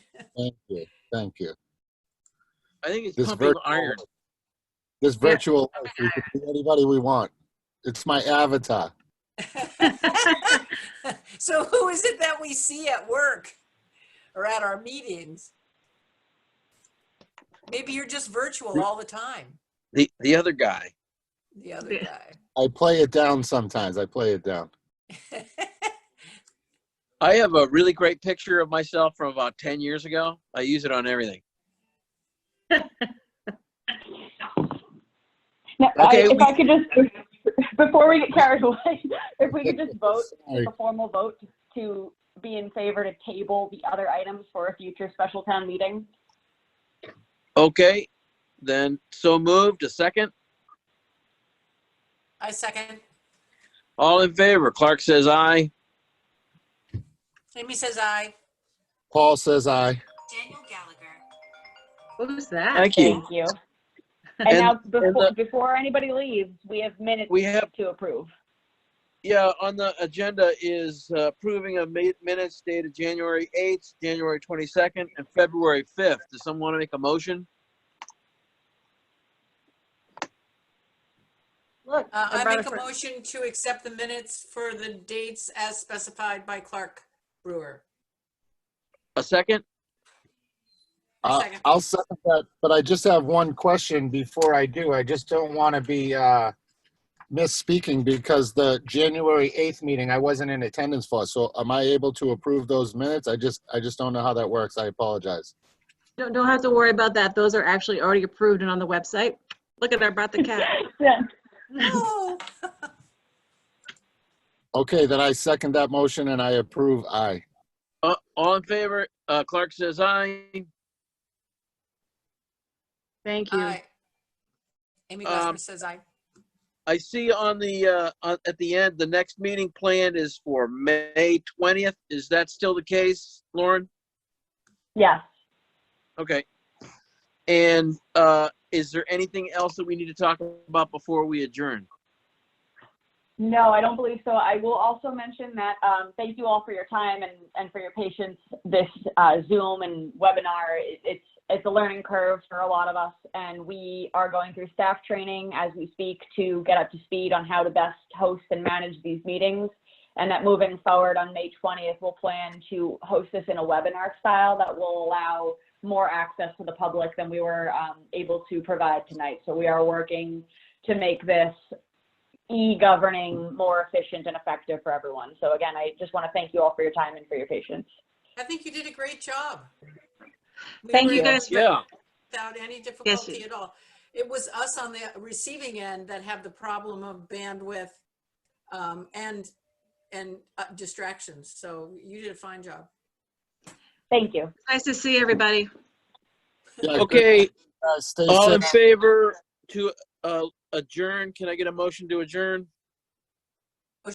Thank you, thank you. I think it's This pumping virtual- iron. This Yeah. virtual, life, we can be anybody we want. It's my avatar. So who is it that we see at work or at our meetings? Maybe you're just virtual all the time, The the other guy. the other guy. I play it down sometimes. I play it down. I have a really great picture of myself from about ten years ago. I use it on everything. No, Okay, I, if we- I could just, before we get carried away, if we could just vote, Sorry. a formal vote to be in favor to table the other items for a future special town meeting. Okay, then so moved. A second. I second. All in favor? Clark says aye. Amy says aye. Paul says I. Daniel Gallagher. What was that? Thank you. Thank you. And- And now, before, the- before anybody leaves, we have minutes We have to approve. yeah on the agenda is uh, approving a ma- minutes dated January eighth, January twenty second, and February fifth. Does someone want to make a motion? Look, Uh, I I brought make it a for- motion to accept the minutes for the dates as specified by Clark Brewer. A second. I- Second. I'll second that, but I just have one question before I do. I just don't want to be uh, misspeaking because the January 8th meeting, I wasn't in attendance for. So am I able to approve those minutes? I just, I just don't know how that works. I apologize. Don't, don't have to worry about that. Those are actually already approved and on the website. Look at, I brought the cat. Yeah. Oh, Okay, then I second that motion and I approve I. Uh, all in favor? Uh, Clark says aye. Thank you. aye. Amy Um, Glassman says aye. I see on the, uh, on- at the end, the next meeting planned is for May 20th. Is that still the case, Lauren? Yes. Okay. And, uh, is there anything else that we need to talk about before we adjourn? No, I don't believe so. I will also mention that, um, thank you all for your time and, and for your patience. This, uh, Zoom and webinar, it- it's, it's a learning curve for a lot of us. And we are going through staff training as we speak to get up to speed on how to best host and manage these meetings. And that moving forward on May 20th, we'll plan to host this in a webinar style that will allow more access to the public than we were, um, able to provide tonight. So we are working to make this e-governing more efficient and effective for everyone. So again, I just want to thank you all for your time and for your patience. I think you did a great job. We Thank were you able guys. for- Yeah, without any difficulty at all. It was us on the receiving end that have the problem of bandwidth um, and, and uh, distractions. So you did a fine job. Thank you. Nice to see everybody. Yeah, okay. guys, Stay All safe. in favor to, uh, adjourn? Can I get a motion to adjourn?